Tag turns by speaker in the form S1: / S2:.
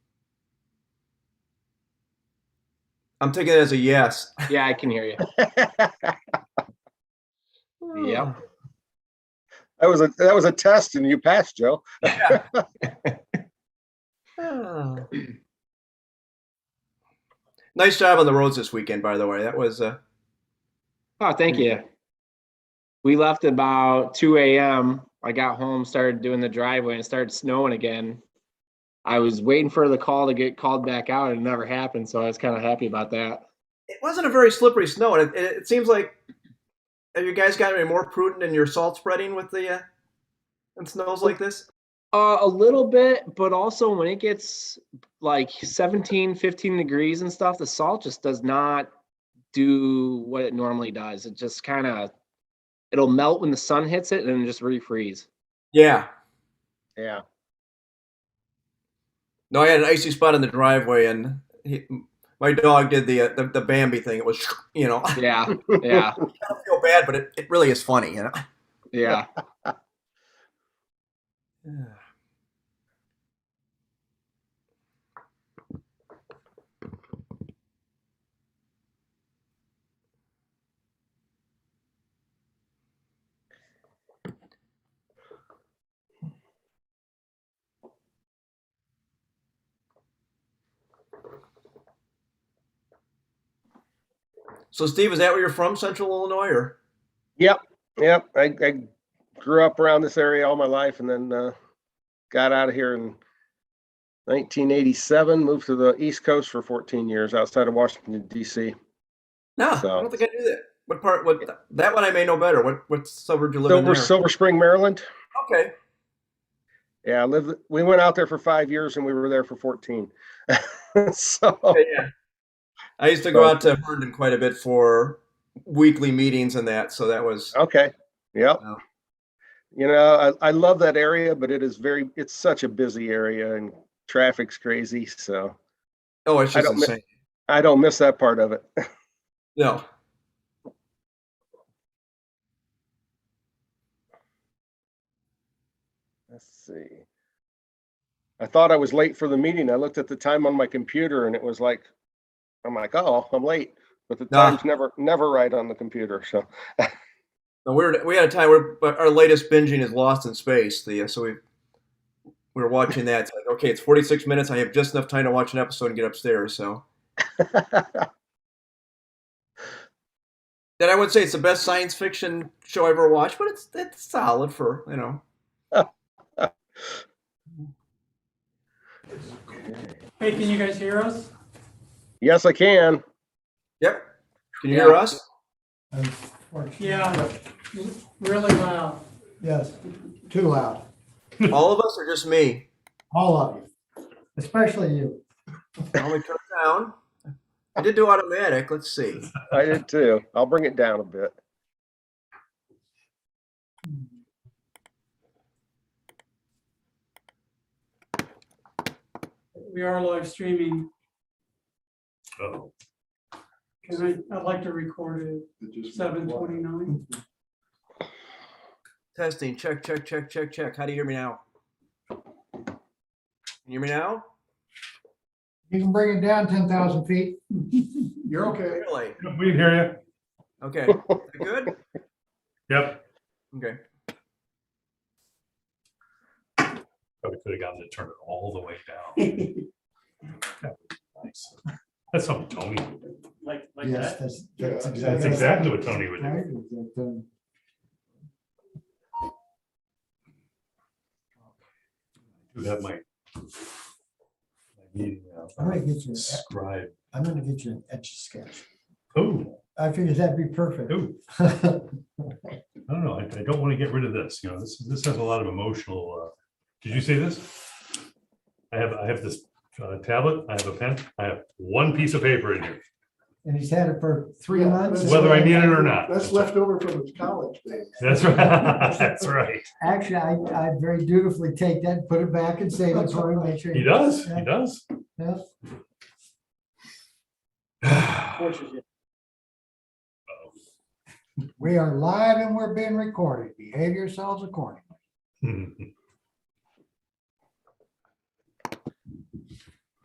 S1: I'm taking it as a yes.
S2: Yeah, I can hear you. Yep.
S3: That was a, that was a test and you passed, Joe.
S1: Yeah. Ah. nice job on the roads this weekend, by the way. That was uh,
S2: Oh, thank you. We left about two AM. I got home, started doing the driveway and it started snowing again. I was waiting for the call to get called back out and it never happened, so I was kind of happy about that.
S1: it wasn't a very slippery snow, and it, it seems like have you guys gotten any more prudent in your salt spreading with the uh, and snows like this?
S2: Uh, a little bit, but also when it gets like 17, 15 degrees and stuff, the salt just does not do what it normally does. It just kind of, it'll melt when the sun hits it and then just refreeze.
S1: Yeah.
S3: Yeah.
S1: No, I had an icy spot in the driveway, and he, my dog did the, uh, the the Bambi thing. It was, you know, I
S2: Yeah, yeah,
S1: don't feel bad, but it, it really is funny, you know.
S2: yeah.
S1: Yeah. So, Steve, is that where you're from, Central Illinois, or?
S3: Yep. I, I grew up around this area all my life and then, uh, got out of here in nineteen eighty-seven, moved to the East Coast for fourteen years outside of Washington DC.
S1: No,
S3: So-
S1: I don't think I knew that. What part? What that one I may know better. What what suburb you live in?
S3: Silver,
S1: there?
S3: Silver Spring, Maryland.
S1: Okay.
S3: Yeah, I lived, we went out there for five years and we were there for fourteen. So,
S1: okay, yeah. I used to go out to Herndon quite a bit for weekly meetings and that, so that was
S3: okay, yep.
S1: Wow.
S3: You know, I, I love that area, but it is very, it's such a busy area and traffic's crazy, so
S1: oh, it's
S3: I
S1: just
S3: don't mi-
S1: insane.
S3: I don't miss that part of it.
S1: No.
S3: Let's see. I thought I was late for the meeting. I looked at the time on my computer and it was like, I'm like, oh, I'm late. But the
S1: Ah.
S3: time's never, never right on the computer. So,
S1: No, we were we had a time where but our latest binging is Lost in Space. The so we we were watching that. It's like, okay, it's forty six minutes. I have just enough time to watch an episode and get upstairs. So then I would say it's the best science fiction show I ever watched, but it's it's solid for you know.
S4: Hey, can you guys hear us?
S3: yes, I can.
S1: Yep. Can you hear
S2: Yeah.
S1: us?
S5: Unfortunately.
S4: Yeah, really loud.
S5: Yes, too loud,
S1: All of us or just me?
S5: all of you, especially you.
S1: Let me turn it down. I did do automatic. Let's see.
S3: I did too. I'll bring it down a bit.
S4: We are live streaming. Oh. Can I, I'd like to record it seven twenty-nine.
S1: Testing. Check, check, check, check, check. How do you hear me now? Can you hear me now?
S5: You can bring it down ten thousand feet. You're okay.
S1: Really?
S6: We can hear
S1: Okay. Is that good?
S6: you. Yep.
S1: Okay.
S6: Probably could have gotten to turn it all the way down. That would be nice. That's something Tony, would do.
S4: Like,
S5: Yes, that's, that's exactly.
S6: that's exactly what Tony would do.
S5: do.
S6: Do have my. my meeting now.
S5: I'm gonna get you, a-
S6: Scribe.
S5: I'm gonna get you an etch sketch.
S6: Oh,
S5: I figured that'd be perfect.
S6: oh, I don't know. I, I don't want to get rid of this, you know, this, this has a lot of emotional, uh, did you see this? I have, I have this uh, tablet, I have a pen, I have one piece of paper in here,
S5: And he's had it for three
S7: Yeah,
S5: months.
S7: that's-
S6: whether I need it or not.
S7: That's left over from his college days.
S6: That's right, that's right.
S5: Actually, I, I very dutifully take that, put it back and save it for him, make sure.
S6: He does, he does.
S5: Yeah.
S6: Hmm.
S5: We are live and we're being recorded. Behave yourselves accordingly.
S6: All